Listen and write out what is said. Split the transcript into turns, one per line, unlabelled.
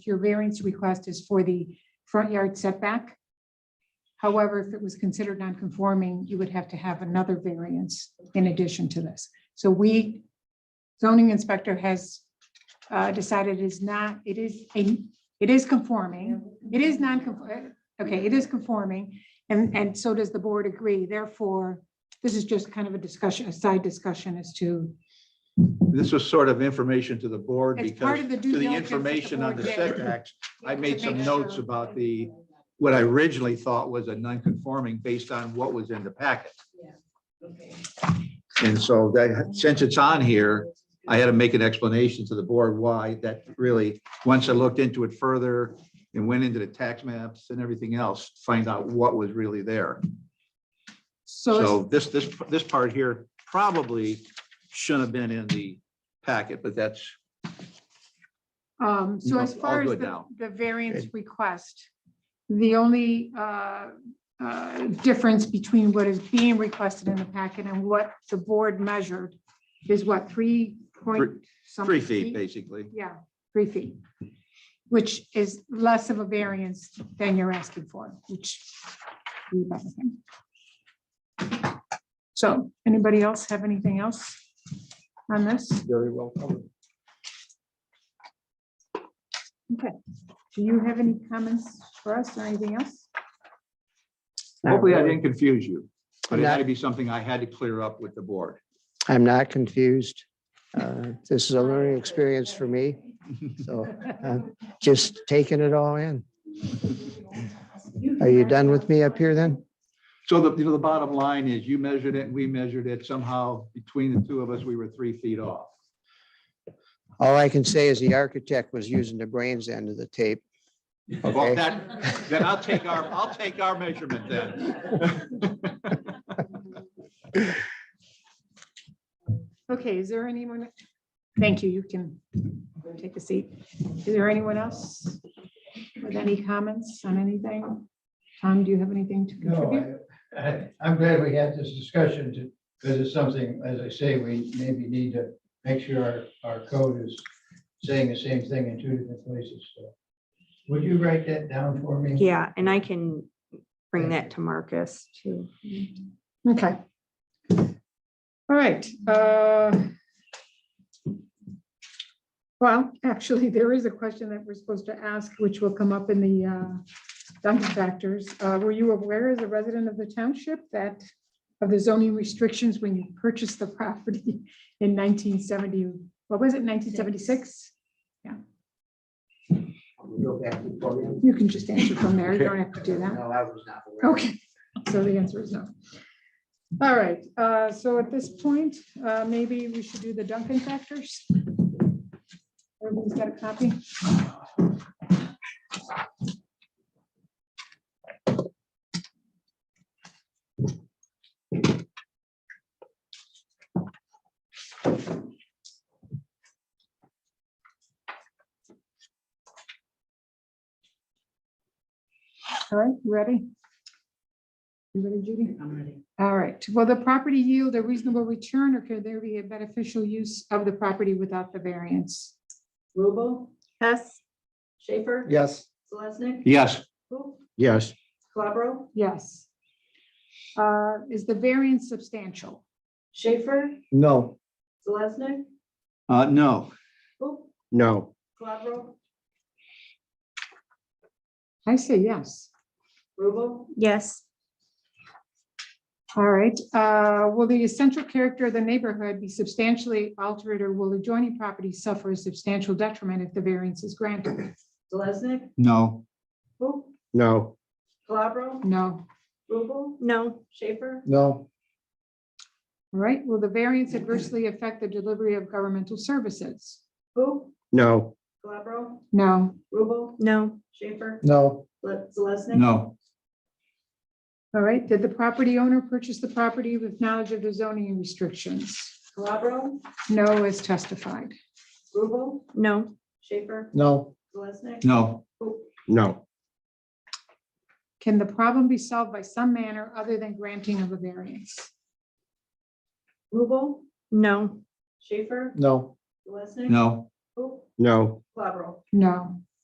your variance request is for the front yard setback. However, if it was considered non-conforming, you would have to have another variance in addition to this. So we, zoning inspector has uh, decided it is not, it is, a it is conforming. It is non-conforming, okay, it is conforming. And, and so does the board agree. Therefore, this is just kind of a discussion, a side discussion as to,
This was sort of information to the board
It's part
because
of the due
to the
diligence that the
information on
board
the
did.
setbacks, I made
To
some
make
notes
sure.
about the, what I originally thought was a non-conforming based on what was in the packet. And so that, since it's on here, I had to make an explanation to the board why that really, once I looked into it further and went into the tax maps and everything else, find out what was really there.
so
So this, this, this part here probably shouldn't have been in the packet, but that's
Um, so
No,
as
all
far as
good
the,
now.
the variance
Okay.
request, the only, uh, uh, difference between what is being requested in the packet and what the board measured is what, three point? something
three feet, basically.
Yeah, three feet, which is less of a variance than you're asking for, which. we love them. So, anybody else have anything else on this?
Very well covered.
Do you have any comments for us or anything else?
Hopefully I didn't confuse you, but it
No.
might be something I had to clear up with the board.
I'm not confused. Uh, This is a learning experience for me, so I'm just taking it all in. Are you done with me up here then?
So the, you know, the bottom line is you measured it and we measured it. Somehow between the two of us, we were three feet off.
All I can say is the architect was using the brains end of the tape.
Well,
Okay.
that, then I'll take our, I'll take our measurement then.
Okay, is there anyone? Thank you, you can take a seat. Is there anyone else with any comments on anything? Tom, do you have anything to contribute?
No, I- I, I'm glad we had this discussion to, because it's something, as I say, we maybe need to make sure our, our code is saying the same thing in two different places. So, Would you write that down for me?
Yeah, and I can bring that to Marcus too.
Okay. All right. uh, Well, actually, there is a question that we're supposed to ask, which will come up in the uh, Duncan factors. Uh, Were you aware as a resident of the township that of the zoning restrictions when you purchased the property in 1970, what was it, 1976?
Go back to the podium.
You can just answer from there. You don't have to do that.
No, I was not aware.
Okay, so the answer is no. All right, uh, so at this point, uh, maybe we should do the Duncan factors. Everybody's got a copy? All right, you ready? You ready, Judy? I'm ready. All right, will the property yield a reasonable return or could there be a beneficial use of the property without the variance?
Rubel,
Hess,
Schaefer.
Yes.
Selesnik.
Yes,
Who?
Yes.
Calabro,
Yes. Uh, Is the variance substantial?
Schaefer,
No.
Selesnik,
uh, no,
who?
No.
Calabro,
I say yes.
Rubel,
yes,
All right, uh, will the essential character of the neighborhood be substantially altered or will adjoining properties suffer a substantial detriment if the variance is granted?
Selesnik,
no,
who?
No.
Calabro,
No.
Rubel,
no,
Schaefer,
No.
All right, will the variance adversely affect the delivery of governmental services?
who?
No.
Calabro,
No.
Rubel,
no,
Schaefer,
No.
Le- Selesnik.
no,
All right, did the property owner purchase the property with knowledge of the zoning restrictions?
Calabro,
No as testified.
Rubel,
no,
Schaefer,
No.
Selesnik.
no,
Who?
No.
Can the problem be solved by some manner other than granting of a variance?
Rubel,
no,
Schaefer,
No.
Selesnik.
no,
Who?
No.
Calabro,
No.